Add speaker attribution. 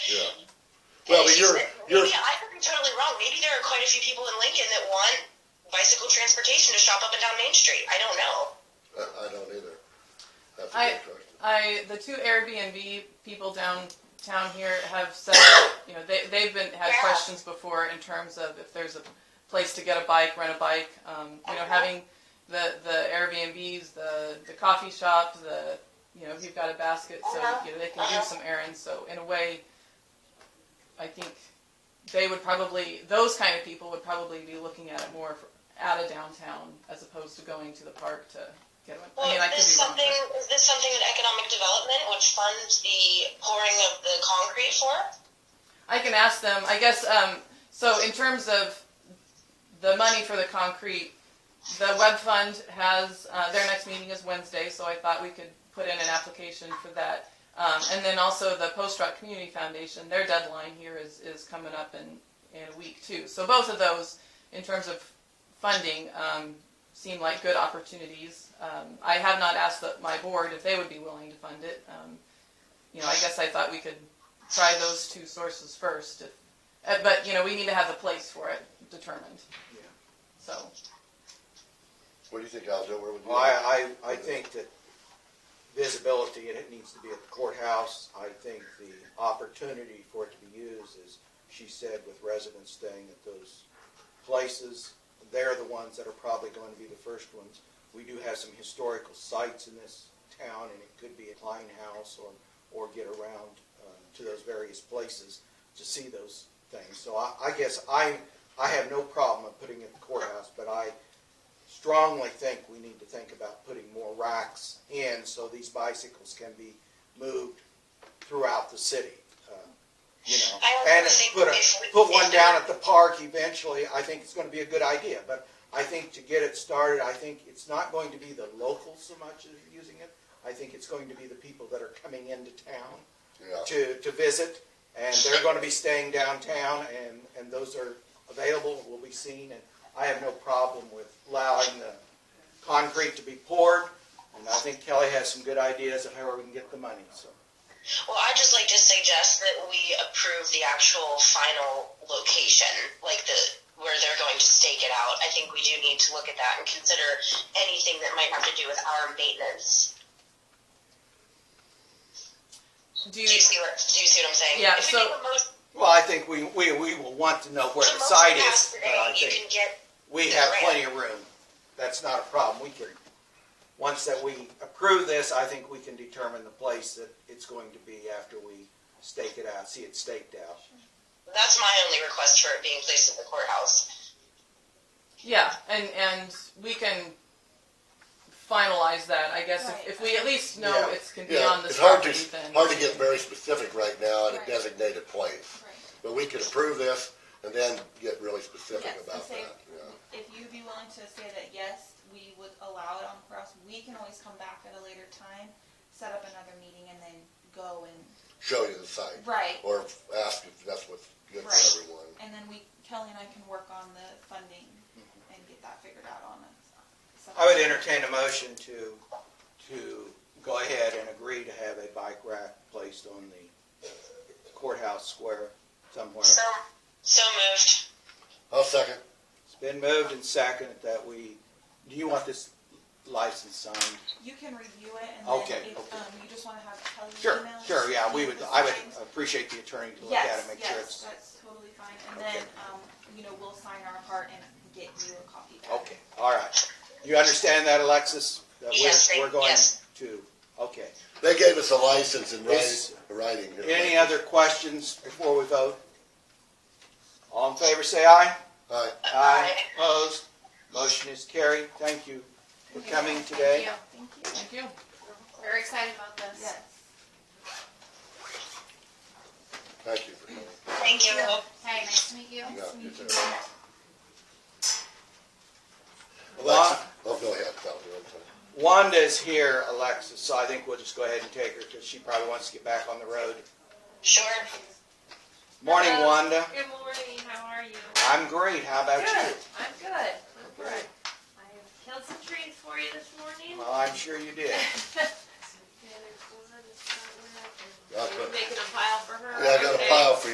Speaker 1: Yeah. Well, but
Speaker 2: It's
Speaker 1: you're
Speaker 2: just that
Speaker 1: you're
Speaker 2: Maybe I could be totally wrong. Maybe there are quite a few people in Lincoln that want bicycle transportation to shop up and down Main Street. I don't know.
Speaker 3: I, I don't either. That's a
Speaker 4: I-
Speaker 3: good question.
Speaker 4: I the two Airbnb people downtown here have said that, you know they they've been had
Speaker 2: Yeah.
Speaker 4: questions before in terms of if there's a place to get a bike, rent a bike. Um, you know, having the the Airbnbs, the the coffee shop, the you know if you've got a basket, so
Speaker 2: Uh-huh.
Speaker 4: you know, they can do some errands. So in a way, I think they would probably those kind of people would probably be looking at it more for, out of downtown as opposed to going to the park to get one.
Speaker 2: Well,
Speaker 4: I mean, I
Speaker 2: is
Speaker 4: could
Speaker 2: this
Speaker 4: be wrong.
Speaker 2: something?
Speaker 4: but-
Speaker 2: Is this something in economic development, which funds the pouring of the concrete for?
Speaker 4: I can ask them. I guess um, so. In terms of the money for the concrete, the web fund has uh, their next meeting is Wednesday, so I thought we could put in an application for that. Um, and then also the Post Rock Community Foundation, their deadline here is, is coming up in, in a week too. So both of those, in terms of funding, um, seem like good opportunities. Um, I have not asked the, my board if they would be willing to fund it. Um, you know, I guess I thought we could try those two sources first. If, uh, but you know, we need to have the place for it determined.
Speaker 5: Yeah.
Speaker 4: So
Speaker 3: What do you think, Aljo? Where would you?
Speaker 5: Well, I, I, I think that visibility, and it needs to be at the courthouse. I think the opportunity for it to be used is, she said, with residents staying at those places, they're the ones that are probably going to be the first ones. We do have some historical sites in this town, and it could be a Klein House or, or get around uh, to those various places to see those things. So I, I guess I, I have no problem with putting it at the courthouse, but I, strongly think we need to think about putting more racks in so these bicycles can be moved throughout the city. uh, You know,
Speaker 2: I also
Speaker 5: and
Speaker 2: think
Speaker 5: put a,
Speaker 2: if we-
Speaker 5: put one down at the park eventually, I think it's gonna be a good idea. But I think to get it started, I think it's not going to be the locals so much as using it. I think it's going to be the people that are coming into town
Speaker 3: Yeah.
Speaker 5: to, to visit, and they're going to be staying downtown, and, and those are available, will be seen, and I have no problem with allowing the concrete to be poured, and I think Kelly has some good ideas of how we can get the money, so.
Speaker 2: Well, I'd just like to suggest that we approve the actual final location, like the where they're going to stake it out. I think we do need to look at that and consider anything that might have to do with our maintenance.
Speaker 4: do you?
Speaker 2: Do you see what, do you see what I'm saying?
Speaker 4: Yeah,
Speaker 2: If we
Speaker 4: so-
Speaker 2: make a motion
Speaker 5: Well, I think we, we, we will want to know where
Speaker 2: to
Speaker 5: the site
Speaker 2: motion pass
Speaker 5: is, but
Speaker 2: today,
Speaker 5: I
Speaker 2: you
Speaker 5: think
Speaker 2: can get
Speaker 5: we have plenty of room. That's not a problem, we can, once that we approve this, I think we can determine the place that it's going to be after we stake it out, see it staked out.
Speaker 2: That's my only request for it being placed at the courthouse.
Speaker 4: Yeah, and and we can finalize that. I guess
Speaker 6: Right.
Speaker 4: if, if we at least know
Speaker 3: Yeah.
Speaker 4: it's can be
Speaker 3: Yeah,
Speaker 4: on this
Speaker 3: it's hard
Speaker 4: property,
Speaker 3: to
Speaker 4: then
Speaker 3: hard to get very specific right now in a
Speaker 6: Right.
Speaker 3: designated place,
Speaker 6: Right.
Speaker 3: but we could approve this and then get really specific
Speaker 6: Yes, and
Speaker 3: about
Speaker 6: say-
Speaker 3: that. Yeah.
Speaker 6: If you'd be willing to say that, yes, we would allow it on the cross, we can always come back at a later time, set up another meeting and then go and,
Speaker 3: Show you the site
Speaker 6: right.
Speaker 3: or ask if that's what's good
Speaker 6: Right.
Speaker 3: for everyone.
Speaker 6: And then we, Kelly and I can work on the funding
Speaker 5: Mm-hmm.
Speaker 6: and get that figured out on it.
Speaker 5: I would entertain a motion to, to go ahead and agree to have a bike rack placed on the courthouse square somewhere.
Speaker 2: So, so moved.
Speaker 3: I'll second.
Speaker 5: It's been moved and seconded that we, do you want this license signed?
Speaker 6: You can review it and then
Speaker 5: Okay,
Speaker 6: if,
Speaker 5: okay.
Speaker 6: um, you just wanna have Kelly
Speaker 5: Sure,
Speaker 6: email.
Speaker 5: sure, yeah, we would,
Speaker 6: the
Speaker 5: I would
Speaker 6: signs.
Speaker 5: appreciate the attorney to look at it,
Speaker 6: Yes,
Speaker 5: make sure
Speaker 6: yes,
Speaker 5: it's,
Speaker 6: that's totally fine. And then, um, you know, we'll sign our part and get you a copy back.
Speaker 5: okay, all right. You understand that, Alexis? That
Speaker 2: Yes,
Speaker 5: we're,
Speaker 2: thank-
Speaker 5: we're going
Speaker 2: yes.
Speaker 5: to, okay.
Speaker 3: They gave us a license in
Speaker 5: Is-
Speaker 3: writing. writing here.
Speaker 5: Any other questions before we vote? All in favor, say aye.
Speaker 3: All right.
Speaker 5: Aye. Opposed? Motion is carried. Thank you for coming today.
Speaker 6: Thank you.
Speaker 4: thank you.
Speaker 7: We're excited about this.
Speaker 6: Yes.
Speaker 3: Thank you for coming.
Speaker 2: Thank you.
Speaker 7: Hey, nice to meet you.
Speaker 3: Yeah,
Speaker 6: Nice to
Speaker 3: you
Speaker 6: meet
Speaker 3: too.
Speaker 6: you.
Speaker 3: Alexa, oh, go ahead. Tell me, I'm sorry.
Speaker 5: Wanda's here, Alexis, so I think we'll just go ahead and take her because she probably wants to get back on the road.
Speaker 2: Sure.
Speaker 5: Morning, Wanda.
Speaker 8: Good morning, how are you?
Speaker 5: I'm great. How about
Speaker 8: Good,
Speaker 5: you?
Speaker 8: I'm good. I'm good. I have killed some trees for you this morning.
Speaker 5: Well, I'm sure you did.
Speaker 8: Yeah, there's one that's not where I can-
Speaker 3: I'll put-
Speaker 8: Making a pile for her.
Speaker 3: Yeah, I got a
Speaker 8: Okay.
Speaker 3: pile for you.